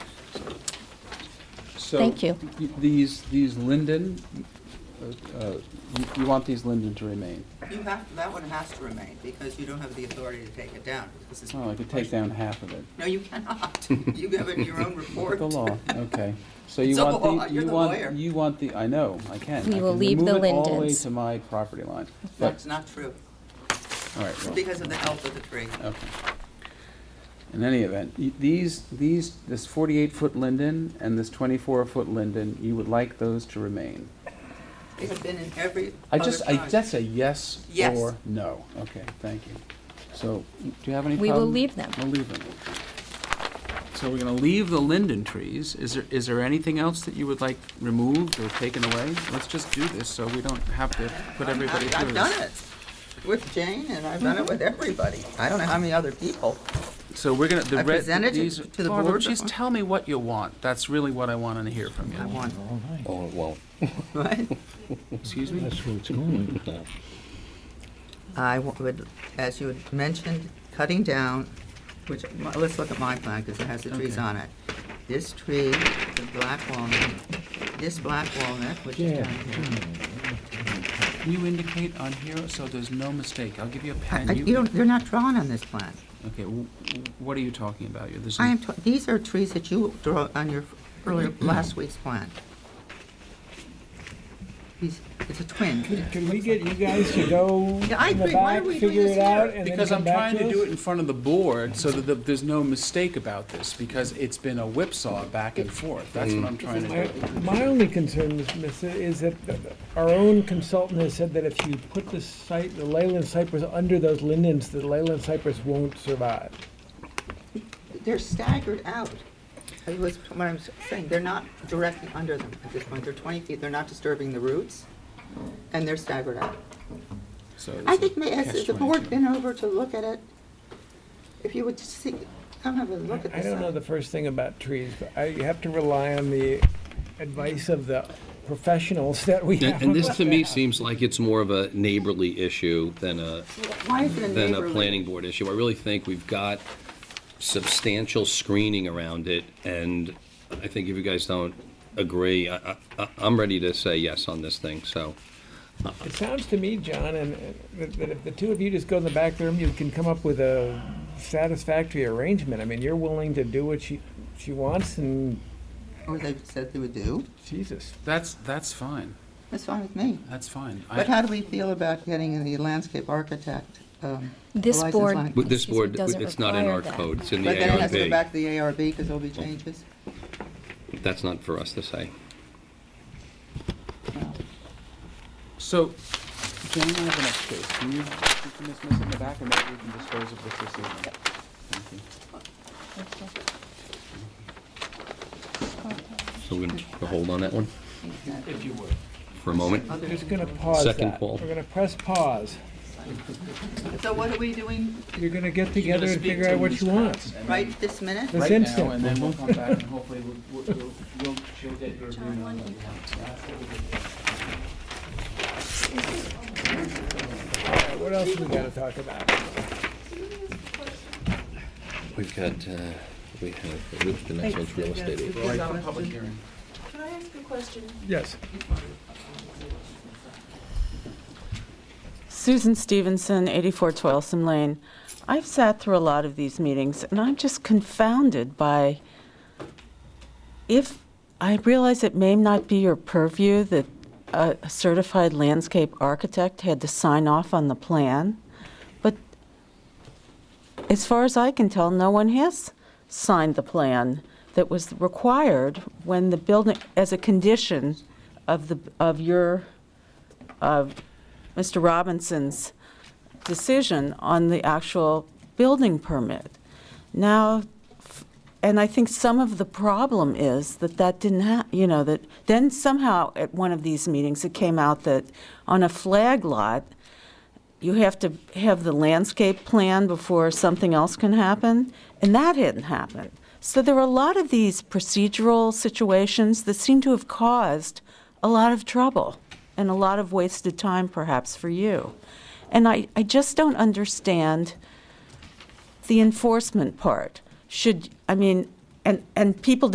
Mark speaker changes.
Speaker 1: Thank you.
Speaker 2: So, these, these Linden, uh, uh, you- you want these Linden to remain?
Speaker 3: You have, that one has to remain, because you don't have the authority to take it down. This is-
Speaker 2: Oh, I could take down half of it.
Speaker 3: No, you cannot. You have it in your own report.
Speaker 2: The law, okay. So you
Speaker 3: It's a
Speaker 2: want
Speaker 3: law.
Speaker 2: the,
Speaker 3: You're
Speaker 2: you
Speaker 3: the lawyer.
Speaker 2: want, you want the, I know, I can.
Speaker 1: We
Speaker 2: I
Speaker 1: will
Speaker 2: can
Speaker 1: leave the
Speaker 2: Move it all the way
Speaker 1: Lindens.
Speaker 2: to my property line. But,
Speaker 3: That's not true,
Speaker 2: all right, well,
Speaker 3: because of the health of the tree.
Speaker 2: okay. In any event, y- these, these, this 48-foot Linden and this 24-foot Linden, you would like those to remain?
Speaker 3: They have been in every
Speaker 2: I
Speaker 3: other
Speaker 2: just, I,
Speaker 3: project.
Speaker 2: that's a yes
Speaker 3: Yes.
Speaker 2: or no. Okay, thank you. So, do you have any
Speaker 1: We will
Speaker 2: problem?
Speaker 1: leave them.
Speaker 2: We'll leave them. So we're gonna leave the linden trees. Is there, is there anything else that you would like removed or taken away? Let's just do this so we don't have to put
Speaker 3: I'm-
Speaker 2: everybody
Speaker 3: I've-
Speaker 2: through
Speaker 3: I've done
Speaker 2: this.
Speaker 3: it with Jane, and I've done it with everybody. I don't know how many other people.
Speaker 2: So we're gonna, the
Speaker 3: I
Speaker 2: red,
Speaker 3: presented it
Speaker 2: these.
Speaker 3: to the
Speaker 2: Barbara,
Speaker 3: board
Speaker 2: Just
Speaker 3: before.
Speaker 2: tell me what you want. That's really what I want to hear from
Speaker 3: I
Speaker 2: you.
Speaker 3: want,
Speaker 4: Oh, well,
Speaker 3: right?
Speaker 2: Excuse me?
Speaker 4: that's where it's going with that.
Speaker 3: I wa- would, as you had mentioned, cutting down, which, m- let's look at my plan, because it has the trees
Speaker 2: Okay.
Speaker 3: on it. This tree, the black walnut, this black walnut, which is
Speaker 4: Yeah.
Speaker 3: down here.
Speaker 2: Can you indicate on here so there's no mistake? I'll give you a
Speaker 3: I-
Speaker 2: pen.
Speaker 3: I- You don't, they're not drawn on this plan.
Speaker 2: Okay, wh- wh- what are you talking about? You're- this is-
Speaker 3: I am, t- these are trees that you draw on your earlier, last week's plan. These, it's a twin.
Speaker 5: Can we get you guys to go
Speaker 3: Yeah, I
Speaker 5: in the
Speaker 3: agree. Why
Speaker 5: back,
Speaker 3: are we doing
Speaker 5: figure
Speaker 3: this
Speaker 5: it out,
Speaker 3: here?
Speaker 5: and then
Speaker 2: Because
Speaker 5: come
Speaker 2: I'm
Speaker 5: back
Speaker 2: trying to do
Speaker 5: to
Speaker 2: it
Speaker 5: us?
Speaker 2: in front of the board so that the- there's no mistake about this, because it's been a whipsaw back and forth. That's what I'm trying to do.
Speaker 5: Mm. My- My only concern, Ms. Miss, is that our own consultant has said that if you put the site, the Leyland cypress under those lindens, the Leyland cypress won't survive.
Speaker 3: They're staggered out. It was what I'm saying, they're not directly under them at this point. They're 20 feet, they're not disturbing the roots, and they're staggered out.
Speaker 2: So
Speaker 3: I
Speaker 2: it's
Speaker 3: think,
Speaker 2: a
Speaker 3: may- has the
Speaker 2: catch-22.
Speaker 3: board been over to look at it? If you would just see, come have a look at
Speaker 5: I
Speaker 3: this.
Speaker 5: don't know the first thing about trees, but I have to rely on the advice of the professionals that we have.
Speaker 6: And and this, to me, seems like it's more of a neighborly issue than a,
Speaker 3: Why is it a
Speaker 6: than a
Speaker 3: neighborly?
Speaker 6: planning board issue. I really think we've got substantial screening around it, and I think if you guys don't agree, I, I- I, I'm ready to say yes on this thing, so.
Speaker 5: It sounds to me, John, and, and that- that if the two of you just go in the back room, you can come up with a satisfactory arrangement. I mean, you're willing to do what she, she wants and
Speaker 3: Or they said they would do.
Speaker 5: Jesus.
Speaker 2: That's, that's fine.
Speaker 3: That's fine with me.
Speaker 2: That's fine. I-
Speaker 3: But how do we feel about getting the landscape architect? um, a
Speaker 1: This
Speaker 3: license
Speaker 1: board-
Speaker 3: on it?
Speaker 6: With this
Speaker 1: Excuse me,
Speaker 6: board,
Speaker 1: doesn't
Speaker 6: it's not in
Speaker 1: require
Speaker 6: our
Speaker 1: that.
Speaker 6: code, it's in the
Speaker 3: But then it has to go
Speaker 6: ARB.
Speaker 3: back to the ARB because there'll be
Speaker 6: Oh.
Speaker 3: changes.
Speaker 6: That's not for us to say.
Speaker 2: So, Jane, I have an extra. Can you, you can dismiss it in the back and maybe we can dispose of this this evening? Thank you.
Speaker 6: So we're going to hold on that one
Speaker 2: If you would.
Speaker 6: for a moment.
Speaker 5: We're just gonna pause
Speaker 6: Second
Speaker 5: that.
Speaker 6: call.
Speaker 5: We're gonna press pause.
Speaker 3: So what are we doing
Speaker 5: You're gonna get together and figure out what you want.
Speaker 3: right this minute?
Speaker 5: This
Speaker 2: right now,
Speaker 5: instant.
Speaker 2: and then we'll come back and hopefully we'll, we'll, we'll- we'll, she'll get your agreement on what you
Speaker 5: What else we gotta talk about?
Speaker 4: We've got, uh, we have, the next one's real estate agent.
Speaker 2: want. Public hearing.
Speaker 7: Can I ask a question?
Speaker 5: Yes.
Speaker 7: Susan Stevenson, 84 Toilsome Lane. I've sat through a lot of these meetings, and I'm just confounded by, if, I realize it may not be your purview that a a certified landscape architect had to sign off on the plan, but as far as I can tell, no one has signed the plan that was required when the building, as a condition of the, of your, of Mr. Robinson's decision on the actual building permit. Now, f- and I think some of the problem is that that didn't hap, you know, that, then somehow at one of these meetings, it came out that on a flag lot, you have to have the landscape plan before something else can happen, and that hadn't happened. So there were a lot of these procedural situations that seem to have caused a lot of trouble and a lot of wasted time perhaps for you. And I, I just don't understand the enforcement part. Should, I mean, and, and people